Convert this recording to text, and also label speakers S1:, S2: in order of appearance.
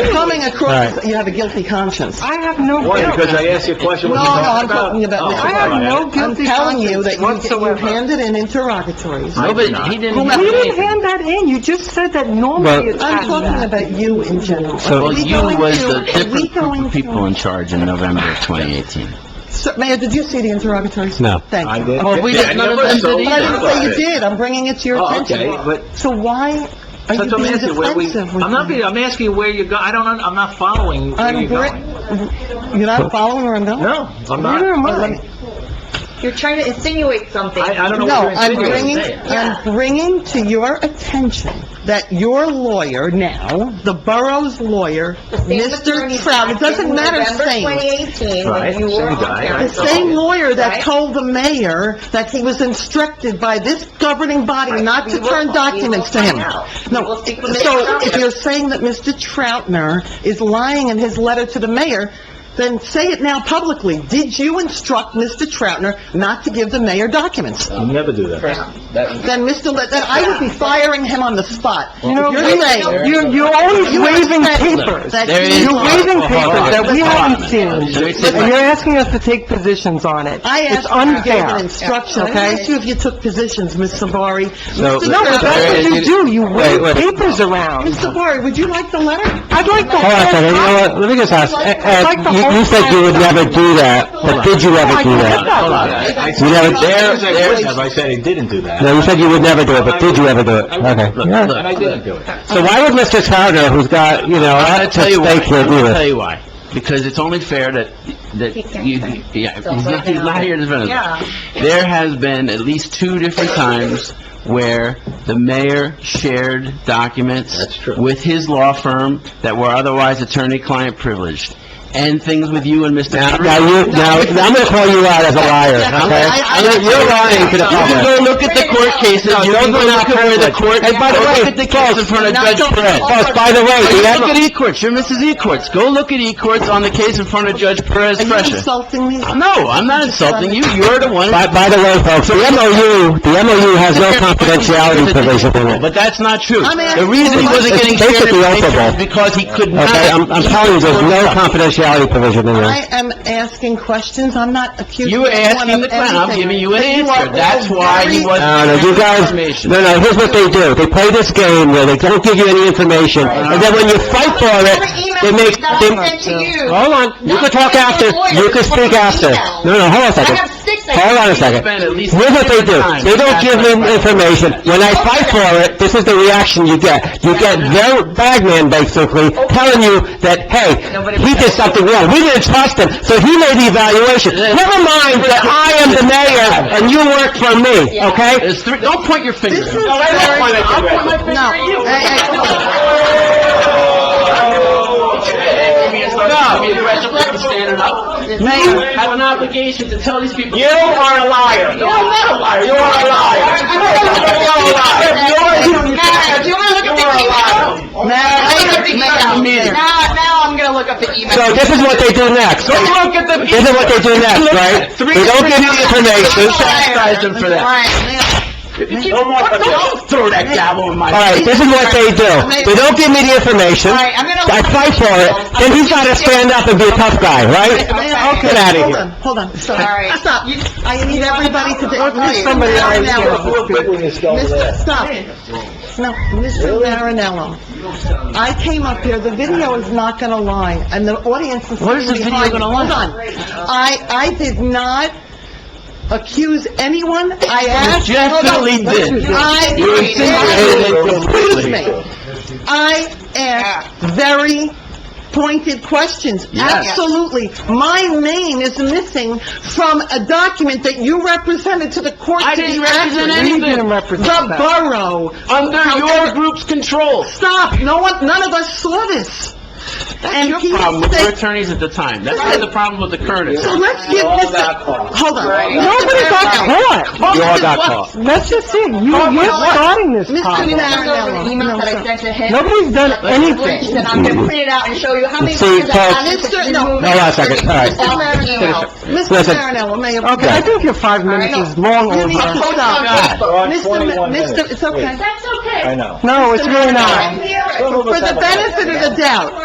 S1: coming across, as you have a guilty conscience.
S2: I have no
S3: Why?
S2: guilt.
S3: Because I asked you a question, what
S1: No,
S3: you
S1: no,
S3: talking
S1: I'm
S3: about?
S1: talking about
S3: Oh,
S1: Mr.
S2: I have
S3: all right.
S2: no
S1: I'm
S2: guilty
S1: telling you that
S2: conscience
S1: you- you
S2: whatsoever.
S1: handed in interrogatories.
S3: I
S4: Nobody,
S3: did not.
S4: he didn't
S1: Whomever
S4: do
S2: You didn't
S4: anything.
S2: hand that in, you just said that normally
S4: But-
S2: it's
S1: I'm talking
S2: happening.
S1: about you in general. Are
S4: Well,
S1: we
S4: you
S1: going
S4: was
S1: to- are
S4: the
S1: we
S4: different group
S1: going
S4: of people in charge in November of 2018.
S1: to- Sir, Mayor, did you see the interrogatories?
S5: No.
S1: Thank
S3: I
S1: you.
S3: did.
S4: Well, we
S3: Yeah,
S4: didn't-
S3: I
S4: none of
S3: never
S4: them did
S3: sold
S4: either.
S1: But I didn't say you
S3: it.
S1: did, I'm bringing it to your
S3: Oh,
S1: attention.
S3: okay, but-
S1: So why are you
S3: That's what I'm
S1: being
S3: asking,
S1: defensive
S3: where we,
S1: with me?
S3: I'm not being, I'm asking you where you go, I don't, un- I'm not following where
S1: I'm
S3: you're
S1: bri-
S3: going.
S1: You're not following where I'm going?
S3: No, I'm
S1: Neither
S3: not.
S1: am I.
S6: You're trying to insinuate something.
S3: I, I don't know
S1: No,
S3: what
S1: I'm
S3: you're
S1: bringing,
S3: insinuating.
S1: I'm bringing to your attention that your lawyer now, the borough's lawyer, Mr. Trout, it doesn't matter saying,
S6: November 2018,
S3: Right,
S6: when you were
S3: same guy,
S6: on
S1: the
S3: right.
S6: council.
S1: same lawyer that
S6: Right.
S1: told the mayor that he was instructed by this governing body
S6: Right.
S1: not
S6: We
S1: to
S6: will- we
S1: turn
S6: will
S1: documents to
S6: find
S1: him.
S6: out. We
S1: No,
S6: will speak with Mr.
S1: so if
S6: Troutner.
S1: you're saying that Mr. Troutner is lying in his letter to the mayor, then say it now publicly. Did you instruct Mr. Troutner not to give the mayor documents?
S3: I'll never do that.
S1: Then Mr. Le, then I would be firing him on the spot.
S2: You know,
S1: You're saying,
S2: You're, you're always
S1: You
S2: waving
S1: upset them.
S2: papers.
S1: That
S4: There is-
S2: You're waving
S4: Hold on, hold
S2: papers
S4: on.
S2: that we
S4: Hold on.
S2: haven't seen.
S4: There's different-
S2: And you're asking us to take positions on it.
S1: I asked
S2: It's
S1: you to give an
S2: unfair.
S1: instruction, okay? I asked you if you took positions, Ms. Savari.
S4: No,
S1: Mr.
S2: No, but that's what you do, you
S4: Wait,
S2: wave
S4: wait.
S2: papers around.
S1: Ms. Savari, would you like the letter?
S2: I'd like to...
S5: Hold on a second, you know what, let me just ask, Ed, Ed, you you said you would never do that, but did you ever do that?
S3: Hold on, I, I,
S5: You never,
S3: there,
S4: There- there-
S3: there, have I said I didn't do that.
S5: no, you said you would never do it, but did you ever do it? Okay.
S4: Look,
S5: Yeah.
S3: And I
S4: look,
S3: didn't do it.
S5: So why would Mr. Crowder, who's got, you know, a
S4: I'm
S5: lot
S4: gonna
S5: at
S4: tell you why,
S5: stake
S4: I'm
S5: here, do
S4: gonna
S5: this?
S4: tell you why. Because it's only fair that, that
S6: He can't
S4: you,
S6: say.
S4: yeah,
S6: So
S4: he's not, he's
S6: right
S4: not
S6: now-
S4: here to defend
S6: Yeah.
S4: himself. There has been at least two different times where the mayor shared documents
S3: That's true.
S4: with his law firm that were otherwise attorney-client privileged, and things with you and Mr.
S5: Now,
S4: Crowder.
S5: now you, now, I'm gonna call you out as a liar, okay?
S1: I- I-
S5: You're- You're lying to the
S4: You can
S5: public.
S4: go look at the court cases,
S5: No,
S4: you
S5: those
S4: can go
S5: are not
S4: look at where the
S5: privileged.
S4: court,
S5: And by the way,
S4: look at the case in front of
S5: now
S4: Judge
S5: don't-
S4: Perez.
S5: Folks, by the way,
S4: Hey,
S5: the
S4: you
S5: Admiral-
S4: look at E-Courts, you're Mrs. E-Courts, go look at E-Courts on the case in front of Judge Perez
S1: Are you
S4: Fresher.
S1: insulting me?
S4: No, I'm not insulting you, you're the one...
S5: By, by the way, folks, the MOU, the MOU has no confidentiality provision in it.
S4: But that's not true.
S1: I'm asking-
S4: The reason he wasn't getting
S5: It's
S4: shared
S5: basically
S4: information
S5: open.
S4: is because he could not...
S5: Okay, I'm, I'm telling you, there's no confidentiality provision in there.
S1: I am asking questions, I'm not accusing
S4: You
S1: anyone
S4: were
S1: of anything.
S4: asking the question, I'm giving you an
S1: But you
S4: answer,
S1: are
S4: that's
S1: all
S4: why he
S1: very-
S4: wasn't...
S5: No, no, Uh, you guys,
S4: Information.
S5: no, no, here's what they do. They play this game where they don't give you any information, and then when you fight for it, they make, they... Oh.
S6: I sent to you.
S5: Hold on, you can talk after, you can speak after. No, no, hold on a
S6: I
S5: second.
S6: have six. I
S5: Hold on a second.
S4: Spend at least
S5: Here's what they do.
S4: time.
S5: They don't give me information. When I fight for it, this is the reaction you get. You get their bagman, basically, telling you that, hey, he did something wrong. We didn't trust him, so he made the evaluation. Never mind that I am the mayor and you work for me, okay?
S4: There's three, don't point your finger.
S1: This is
S4: No, I don't
S1: very-
S4: point my finger at you.
S1: No. Hey, hey, come on.
S4: No, you standing up. You have an obligation to tell these people. You are a liar. No, I'm not a liar. You are a liar. You are a liar.
S6: Now, do you want to look at the email? Now, now, now I'm going to look up the email.
S5: So this is what they do next.
S4: Go look at the.
S5: This is what they do next, right? They don't give you information.
S4: Chastise them for that. No more. Don't throw that gavel in my.
S5: All right, this is what they do. They don't give me the information.
S6: All right, I'm going to...
S5: I fight for it, then he's gotta stand up and be a tough guy, right?
S6: Okay.
S5: Get out of
S1: Hold on,
S5: here.
S1: hold on, stop.
S6: All right.
S1: Stop. I need everybody to... Mr.
S5: somebody else
S1: Marinello. Mr.
S3: Mr.
S1: Stop. No, Mr. Marinello, I came up here, the video is not gonna lie, and the audience is
S4: What is the
S1: sitting
S4: video
S1: behind me.
S4: gonna lie?
S1: Hold on. I, I did not accuse anyone, I asked...
S4: You definitely
S1: Hold on.
S4: did.
S1: I...
S4: You insinuated it
S1: Excuse
S4: completely.
S1: me. I asked very pointed questions.
S4: Yes.
S1: Absolutely. My name is missing from a document that you represented to the court.
S4: I
S1: to
S4: didn't
S1: be accurate.
S4: represent anything.
S2: You didn't represent
S1: The
S2: that.
S1: borough.
S4: Under your group's control.
S1: Stop. No one, none of us saw this. And
S4: Your
S1: he
S4: problem with your
S1: said-
S4: attorneys at the time. That's not the problem with the Curtis.
S1: So let's give
S3: All
S1: this,
S3: got caught.
S1: hold on.
S2: Nobody got caught.
S1: Hold
S5: You all
S1: on.
S5: got
S1: What?
S5: caught.
S2: Let's just see, you, you're starting this
S1: Mr.
S2: problem.
S1: Marinello. No,
S6: that I
S1: sir.
S6: sent to him.
S2: Nobody's done anything.
S6: And I'm going to print it out and show you how many...
S5: See,
S6: times I
S5: Paul-
S6: got this,
S1: Mr.
S6: you
S1: No.
S6: remove it.
S5: Hold on a second, all right.
S6: All that email.
S1: Mr.
S5: Listen.
S1: Marinello, may I...
S2: Okay, I think your five minutes
S1: No.
S2: is long
S1: You need to
S2: over.
S1: stop.
S3: We're on
S1: Mr.
S3: 21
S1: Ma-
S3: minutes.
S1: Mr., it's okay.
S3: I know.
S2: No, it's really not.
S1: For the benefit of the doubt,